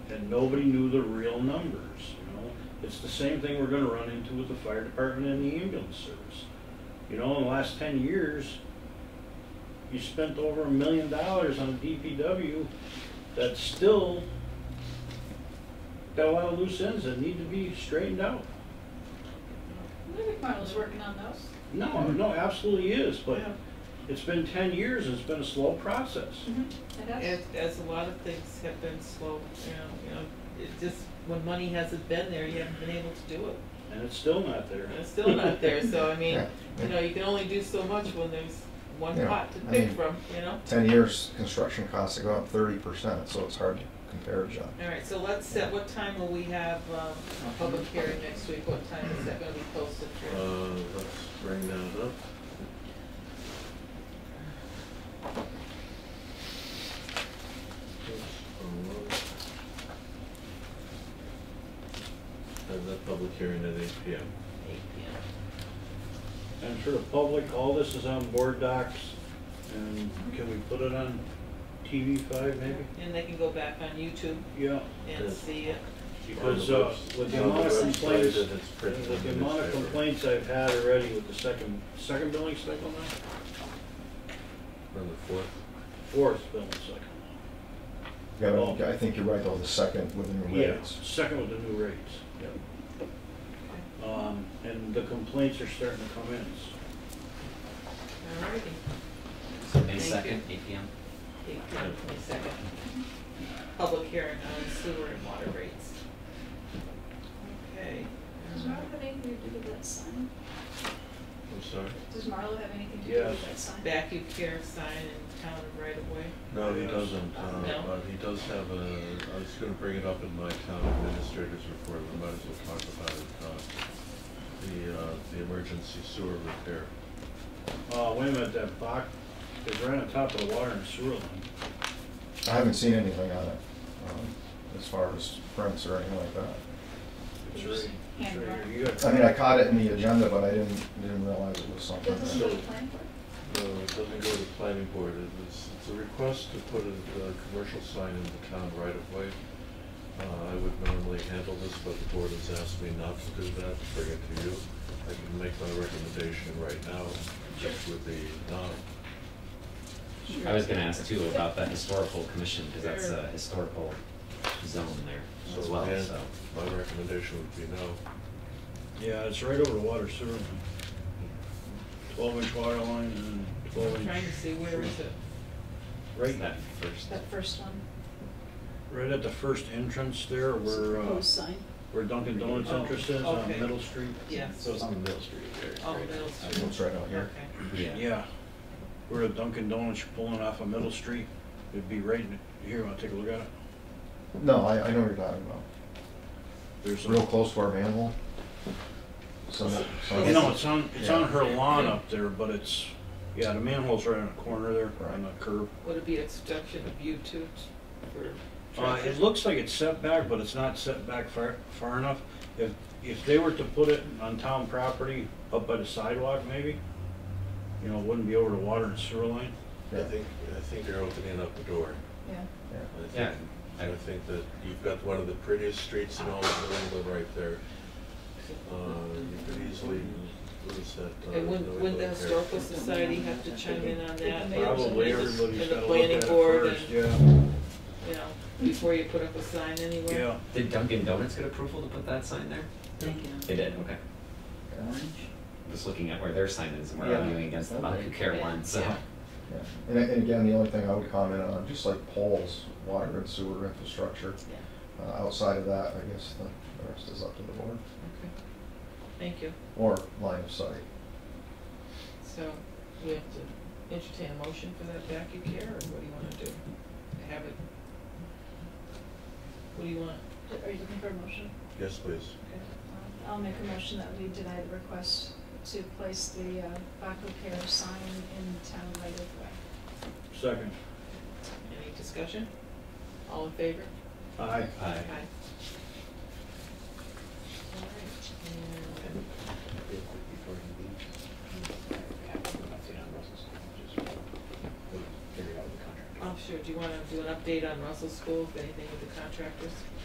and nobody knew the real numbers, you know? It's the same thing we're gonna run into with the fire department and the ambulance service. You know, in the last ten years, you spent over a million dollars on DPW that's still got a lot of loose ends that need to be straightened out. Maybe Marlo's working on those. No, no, absolutely is, but Mm-hmm. Yeah. it's been ten years, and it's been a slow process. It has- As, as a lot of things have been slow, you know, you know, it just, when money hasn't been there, you haven't been able to do it. And it's still not there. And it's still not there, so I mean, Yeah. you know, you can only do so much when there's one Yeah, pot to I pick mean- from, you know? Ten years, construction costs have gone up thirty percent, so it's hard to compare, John. All right, so let's set, what time will we have, um, a public hearing next week? What time is that gonna be posted for? Uh, let's bring that up. Have that public hearing at eight P M. Eight P M. And for the public, all this is on board docs, and can we put it on TV five maybe? And they can go back on YouTube Yeah, and Yes. see it. because, uh, with the amount of complaints, with the amount of complaints I've had already with the second, second billing cycle now, On the fourth. fourth billing cycle. Yeah, well, I think you're right, though, the second with the new Yeah, rates. second with the new rates. Um, and the complaints are starting to come in, so. All righty. So May Thank second, eight P M. Eight PM, twenty-second. Public hearing on sewer and water rates. Okay. Um, Does Marlo have anything to do with that sign? I'm sorry? Does Marlo have anything to do Yes. with that sign? Vacuum care sign in town right away. No, he Yes. doesn't, uh, No? but he does have a, I was gonna bring it up in my town administrator's report, we might as well talk about it, uh, the, uh, the emergency sewer repair. Uh, wait a minute, that box is right on top of the water and sewer line. I haven't seen anything on it, um, as far as prints or anything like that. It's right, it's right here. You I mean, I got, caught it in the agenda, but I didn't, didn't realize it was something. Does this is what that- you planned for? No, it doesn't go to the planning board, it is, it's a request to put a, a commercial sign in the town right of way. Uh, I would normally handle this, but the board has asked me not to do that, to bring it to you. I can make my recommendation right now, which would be not I was gonna ask too about that historical commission, because that's Sure. a historical zone there as So, well, yeah, so. My recommendation would be no. yeah, it's right over the water sewer line. Twelve inch water line and twelve I'm inch. trying to see where is it? It's Right, That first. That first one, right at the first entrance there where, uh, proposed sign. where Dunkin' Donuts Oh, entrance is on okay. Middle Street. Yeah. So it's on the middle street Oh, Middle Street. It's right out Okay. here. Yeah, Yeah, where the Dunkin' Donuts pulling off of Middle Street, it'd be right in, here, I'll take a look at it. No, I, I know what you're talking about. There's a- Real close to our manhole. Some, some. You know, it's on, it's on her Yeah. lawn up there, but it's, yeah, the manhole's right in the corner there, on Right. the curb. Would it be obstruction of you two for Uh, traffic? it looks like it's set back, but it's not set back far, far enough. If, if they were to put it on town property, up by the sidewalk maybe, you know, it wouldn't be over the water and sewer line. I think, I think you're opening up a door. Yeah. Yeah. I think- Yeah. I think that you've got one of the prettiest streets in all of New England right there. Uh, You could easily lose that. uh, And wouldn't, New wouldn't the England there. historical society have to chime in on that? Probably And the- everybody's and the gotta look at planning it board first, and, yeah, You know, before you put up a sign anywhere? yeah. Did Dunkin' Donuts get approval to put that sign there? They did, okay. Just looking at where their sign is, and we're Yeah. arguing against the Baku Care one, so. Yeah. Yeah. And, and again, the only thing I would comment on, just like poles, water and sewer infrastructure, uh, outside of that, I guess the the rest is up to the board, Okay. Thank you. or line of sight. So we have to entertain a motion for that vacuum care, or what do you wanna do? Have it? What do you want? Are you looking for a motion? Yes, please. Um, I'll make a motion that we deny the request to place the uh, Baco Care sign in town right of way. Second, Any discussion? All in favor? aye. Aye. Aye. All right, and I'm sure, do you wanna do an update on Russell School, if anything with the contractors?